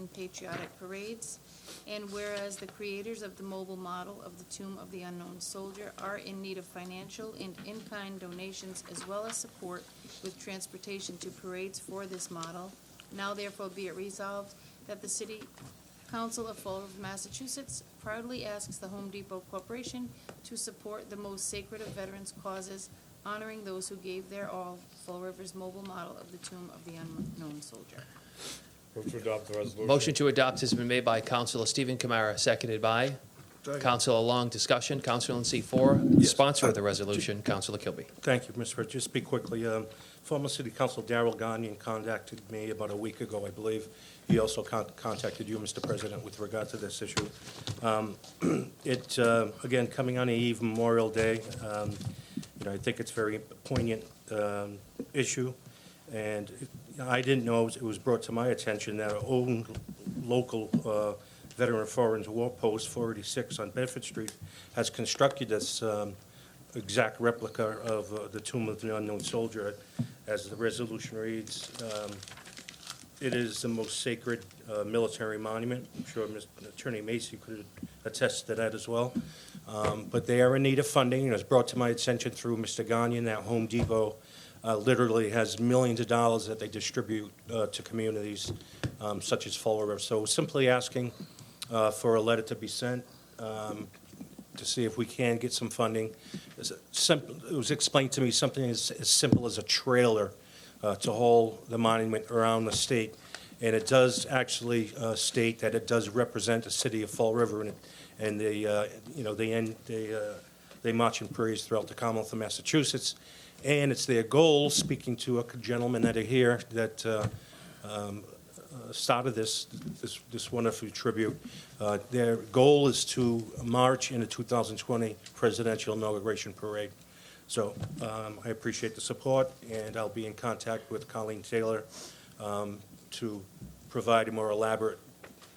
and patriotic parades. And whereas the creators of the mobile model of the Tomb of the Unknown Soldier are in need of financial and in-kind donations as well as support with transportation to parades for this model, now therefore be it resolved that the City Council of Fall River, Massachusetts proudly asks the Home Depot Corporation to support the most sacred of veterans' causes, honoring those who gave their all, Fall River's mobile model of the Tomb of the Unknown Soldier. Move to adopt the resolution. Motion to adopt has been made by Counselor Stephen Kamara, seconded by Counselor Long. Discussion, Counselor in seat four, sponsor of the resolution, Counselor Kilby. Thank you, Mr. Pritchett. Just speak quickly. Um, Former City Council Darrell Gagnon contacted me about a week ago, I believe. He also con- contacted you, Mr. President, with regard to this issue. Um, It, uh, again, coming on the eve of Memorial Day, um, you know, I think it's very poignant um, issue, and it- I didn't know, it was brought to my attention that our own local uh, Veteran Foreign War Post 486 on Bedford Street has constructed this um, exact replica of uh, the Tomb of the Unknown Soldier. As the resolution reads, um, it is the most sacred uh, military monument. I'm sure Mr. Attorney Macy could attest to that as well. Um, But they are in need of funding, and it was brought to my attention through Mr. Gagnon that Home Depot uh, literally has millions of dollars that they distribute uh, to communities um, such as Fall River. So simply asking uh, for a letter to be sent um, to see if we can get some funding. It's a simple- It was explained to me, something as as simple as a trailer uh, to haul the monument around the state. And it does actually uh, state that it does represent the city of Fall River, and it- and they, uh, you know, they end, they uh, they march in parades throughout the Commonwealth of Massachusetts. And it's their goal, speaking to a gentleman that are here, that uh, started this, this, this wonderful tribute. Uh, Their goal is to march in the 2020 presidential inauguration parade. So um, I appreciate the support, and I'll be in contact with Colleen Taylor um, to provide a more elaborate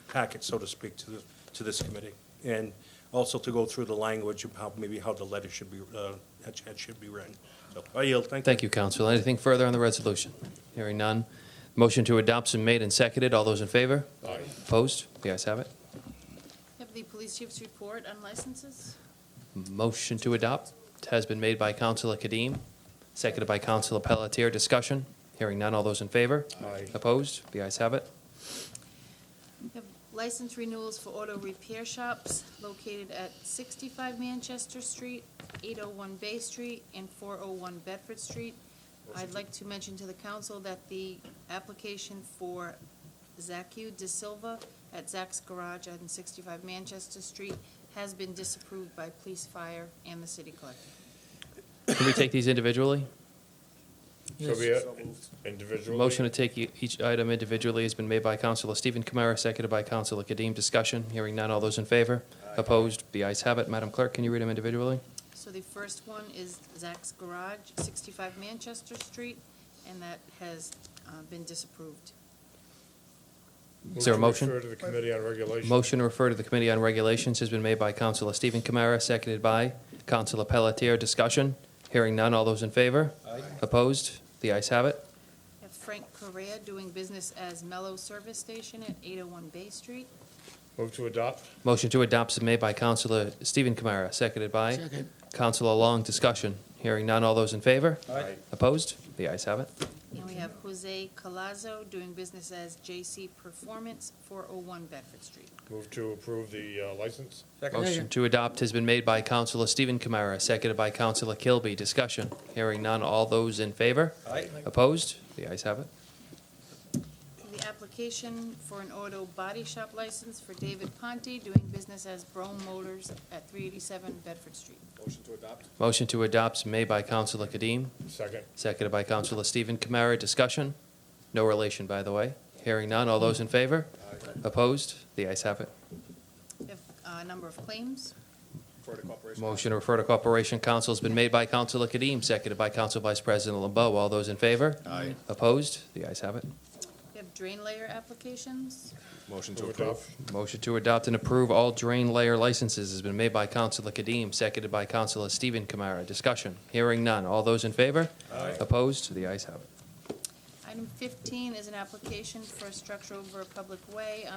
packet, so to speak, to, the- to this committee. And also to go through the language of how, maybe how the letter should be, uh, that should- that should be written. So I yield, thank you. Thank you, Counselor. Anything further on the resolution? Hearing none. Motion to adopt's been made and seconded. All those in favor? Aye. Opposed? The ayes have it. Have the police chief's report on licenses? Motion to adopt has been made by Counselor Kadim, seconded by Counselor Pelletier. Discussion? Hearing none. All those in favor? Aye. Opposed? The ayes have it. Have license renewals for auto repair shops located at 65 Manchester Street, 801 Bay Street, and 401 Bedford Street. I'd like to mention to the council that the application for Zacu De Silva at Zach's Garage on 65 Manchester Street has been disapproved by police, fire, and the city clerk. Can we take these individually? So be it. Individually. Motion to take e- each item individually has been made by Counselor Stephen Kamara, seconded by Counselor Kadim. Discussion, hearing none. All those in favor? Opposed? The ayes have it. Madam Clerk, can you read them individually? So the first one is Zach's Garage, 65 Manchester Street, and that has uh, been disapproved. Is there a Move to motion? Refer to the Committee on Regulation. Motion to refer to the Committee on Regulations has been made by Counselor Stephen Kamara, seconded by Counselor Pelletier. Discussion, hearing none. All those in favor? Opposed? The ayes have it. Have Frank Correa doing business as Mellow Service Station at 801 Bay Street. Move to adopt. Motion to adopt is made by Counselor Stephen Kamara, seconded by Counselor Long. Discussion, hearing none. All those in favor? Aye. Opposed? The ayes have it. And we have Jose Colazo doing business as JC Performance, 401 Bedford Street. Move to approve the uh, license. Motion to adopt has been made by Counselor Stephen Kamara, seconded by Counselor Kilby. Discussion. Hearing none. All those in favor? Aye. Opposed? The ayes have it. The application for an auto body shop license for David Ponte doing business as Brome Motors at 387 Bedford Street. Motion to adopt is made by Counselor Kadim, Second. seconded by Counselor Stephen Kamara. Discussion. No relation, by the way. Hearing none. All those in favor? Opposed? The ayes have it. We have uh, a number of claims. Motion to refer to Corporation Council has been made by Counselor Kadim, seconded by Counsel Vice President LeBeau. All those in favor? Aye. Opposed? The ayes have it. We have drain layer applications. Motion to adopt. Motion to adopt and approve all drain layer licenses has been made by Counselor Kadim, seconded by Counselor Stephen Kamara. Discussion. Hearing none. All those in favor? Aye. Opposed? The ayes have it. Item 15 is an application for a structure over a public way